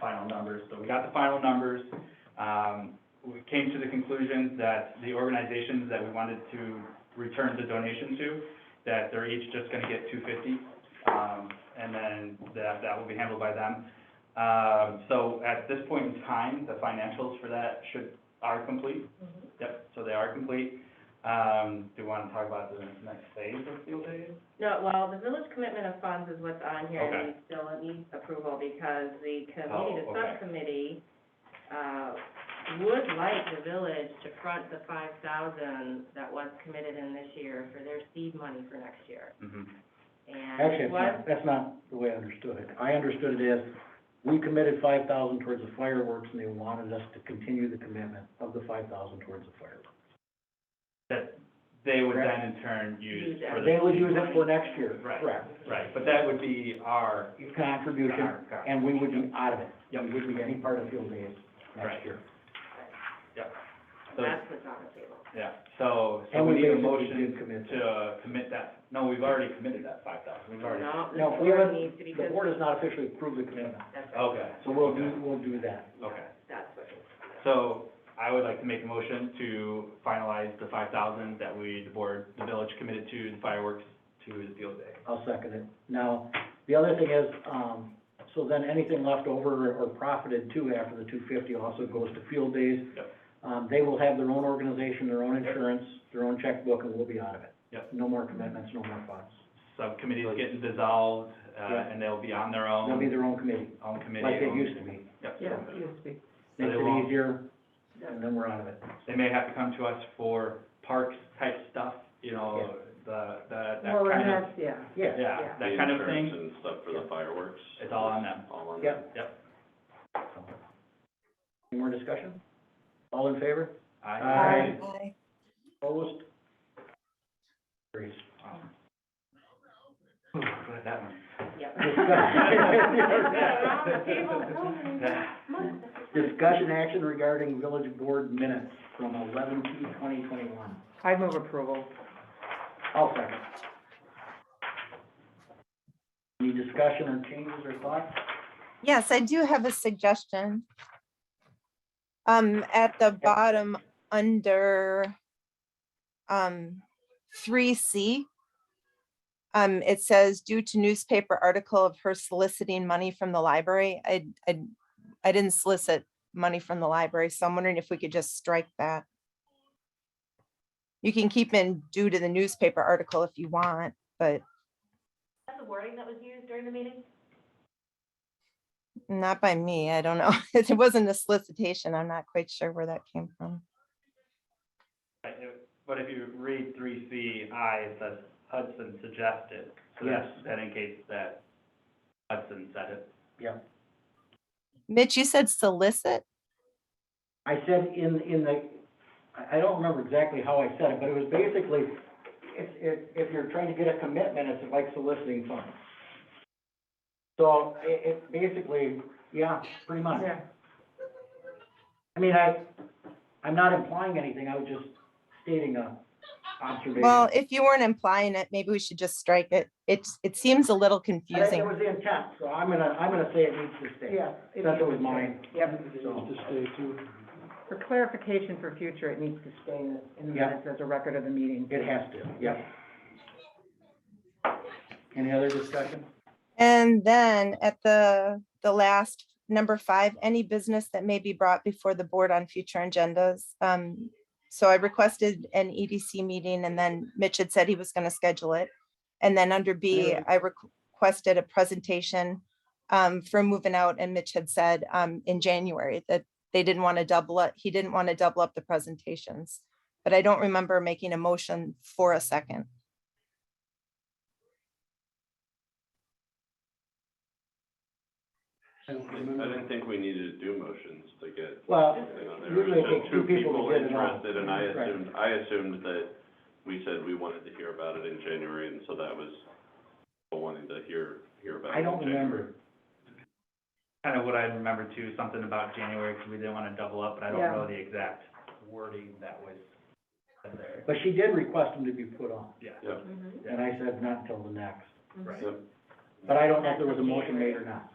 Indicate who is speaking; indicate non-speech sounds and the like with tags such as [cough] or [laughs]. Speaker 1: final numbers. So we got the final numbers. Um, we came to the conclusion that the organizations that we wanted to return the donation to, that they're each just gonna get two fifty. Um, and then that, that will be handled by them. Um, so at this point in time, the financials for that should, are complete.
Speaker 2: Mm-hmm.
Speaker 1: Yep, so they are complete. Um, do you wanna talk about the next phase of field days?
Speaker 2: No, well, the village commitment of funds is what's on here, and we still need approval, because the committee,
Speaker 1: Oh,
Speaker 2: the
Speaker 1: okay.
Speaker 2: subcommittee, uh, would like the village to front the five thousand that was committed in this year for their seed money for next year.
Speaker 3: Mm-hmm.
Speaker 1: Mhm.
Speaker 2: And
Speaker 3: Actually,
Speaker 2: it
Speaker 3: it's
Speaker 2: was,
Speaker 3: not, that's not the way I understood it. I understood it as, we committed five thousand towards the fireworks, and they wanted us to continue the commitment of the five thousand towards the fireworks.
Speaker 1: That they would then in turn use
Speaker 2: Use that.
Speaker 1: for the.
Speaker 3: They would use it for next year,
Speaker 1: Right.
Speaker 3: correct?
Speaker 1: Right, but that would be our.
Speaker 3: Contribution,
Speaker 1: our- our-
Speaker 3: and we would be out of it.
Speaker 1: Yep.
Speaker 3: We wouldn't be any part of field days
Speaker 1: Right.
Speaker 3: next year.
Speaker 1: so-
Speaker 2: that's what's on the table.
Speaker 1: Yeah, so, so
Speaker 3: And
Speaker 1: we need a
Speaker 3: basically
Speaker 1: motion
Speaker 3: did commit to it.
Speaker 1: to commit that, no, we've already committed that five thousand, we've already.
Speaker 2: No, the
Speaker 3: No, we
Speaker 2: board
Speaker 3: haven't-
Speaker 2: needs to,
Speaker 3: The
Speaker 2: because
Speaker 3: board has not officially approved the commitment,
Speaker 2: that's.
Speaker 1: Okay.
Speaker 3: so we'll do, we'll do that.
Speaker 1: Oh, Okay.
Speaker 2: That's what it is.
Speaker 1: So I would like to make a motion to finalize the five thousand that we, the board, the village committed to the fireworks to the field day.
Speaker 3: I'll second it. Now, the other thing is, um, so then anything left over or profited too after the two fifty also goes to field days.
Speaker 1: Yep.
Speaker 3: Um, they will have their own organization, their own insurance, their own checkbook, and we'll be out of it.
Speaker 1: Yep.
Speaker 3: No more commitments, no more funds.
Speaker 1: Subcommittees getting dissolved, uh,
Speaker 3: Yeah.
Speaker 1: and they'll be on their
Speaker 3: They'll be
Speaker 1: own,
Speaker 3: their own committee,
Speaker 1: own Um, committee.
Speaker 3: like they
Speaker 1: own-
Speaker 3: used to be.
Speaker 1: Yep.
Speaker 2: used to be.
Speaker 1: So
Speaker 3: Makes
Speaker 1: they won't-
Speaker 3: it easier, and then we're out of it.
Speaker 1: They may have to come to us for parks type stuff, you know, the, the, that kind of,
Speaker 2: yeah.
Speaker 3: Yeah.
Speaker 1: yeah, that kind of
Speaker 4: The
Speaker 1: thing,
Speaker 4: insurance and stuff for the fireworks.
Speaker 1: it's all on them.
Speaker 4: All on
Speaker 3: Yep.
Speaker 4: them.
Speaker 3: Any more discussion? All in favor?
Speaker 1: Aye. [laughs]
Speaker 2: [laughs]
Speaker 3: Opposed? [laughs] Carries.
Speaker 1: um, Ooh, look at that [laughs] one.
Speaker 2: Yep. [laughs]
Speaker 3: [laughs] Around
Speaker 2: the table,
Speaker 1: [laughs]
Speaker 2: boom.
Speaker 1: Yeah.
Speaker 3: Discussion action regarding village board minutes from eleven two twenty twenty-one.
Speaker 5: I move approval.
Speaker 3: I'll second. Any discussion or changes or thoughts?
Speaker 6: Yes, I do have a suggestion. Um, at the bottom, under um, three C, um, it says due to newspaper article of her soliciting money from the library. I, I, I didn't solicit money from the library, so I'm wondering if we could just strike that. You can keep in due to the newspaper article if you want, but
Speaker 2: That's the wording that was used during the meeting?
Speaker 6: Not by me, I don't know. [laughs] It wasn't a solicitation, I'm not quite sure where that came from.
Speaker 1: Right, it- But if you read three C I, it says Hudson suggested, so that,
Speaker 3: Yes.
Speaker 1: that indicates that Hudson said it.
Speaker 6: Mitch, you said solicit?
Speaker 3: I said in, in the, I, I don't remember exactly how I said it, but it was basically, if, if, if you're trying to get a commitment, it's like soliciting funds. So it, it basically, yeah, pretty much. I mean, I, I'm not implying anything, I was just stating a observation.
Speaker 6: Well, if you weren't implying it, maybe we should just strike it. It's, it seems a little
Speaker 3: I think That
Speaker 6: confusing.
Speaker 3: was the intent, so I'm gonna, I'm gonna say it needs to stay. That's what was mine.
Speaker 5: Yep.
Speaker 3: So,
Speaker 5: For clarification for future, it needs to stay in the- in the
Speaker 3: Yep.
Speaker 5: minutes as a record of the meeting.
Speaker 3: it has to, yep. Any other discussion?
Speaker 6: And then at the, the last, number five, any business that may be brought before the board on future agendas. Um, So I requested an EDC meeting and then Mitch had said he was going to schedule it. And then under B,
Speaker 3: Yeah.
Speaker 6: I requ- requested a presentation um, for moving out and Mitch had said um, in January that they didn't want to double up, he didn't want to double up the presentations. But I don't remember making a motion for a second.
Speaker 3: I don't
Speaker 4: I didn't
Speaker 3: remember.
Speaker 4: think we needed to do motions to get,
Speaker 3: Well,
Speaker 4: you know, there
Speaker 3: usually it
Speaker 4: was
Speaker 3: takes
Speaker 4: just
Speaker 3: two
Speaker 4: two
Speaker 3: people to
Speaker 4: people
Speaker 3: get it on.
Speaker 4: interested, and I
Speaker 3: Right.
Speaker 4: assumed, I assumed that we said we wanted to hear about it in January, and so that was people wanting to hear, hear about it
Speaker 3: I
Speaker 4: in
Speaker 3: don't
Speaker 4: January.
Speaker 3: remember.
Speaker 1: Kind of what I remember too, something about January, because we didn't want to double up, but I don't
Speaker 5: Yeah.
Speaker 1: know the exact wording that was said there.
Speaker 3: But she did request them to be put on,
Speaker 1: Yeah.
Speaker 4: Yeah.
Speaker 2: Mm-hmm.
Speaker 3: and I said not until the next.
Speaker 1: Right.
Speaker 4: Yep.
Speaker 3: But I don't know if there was a motion made or not.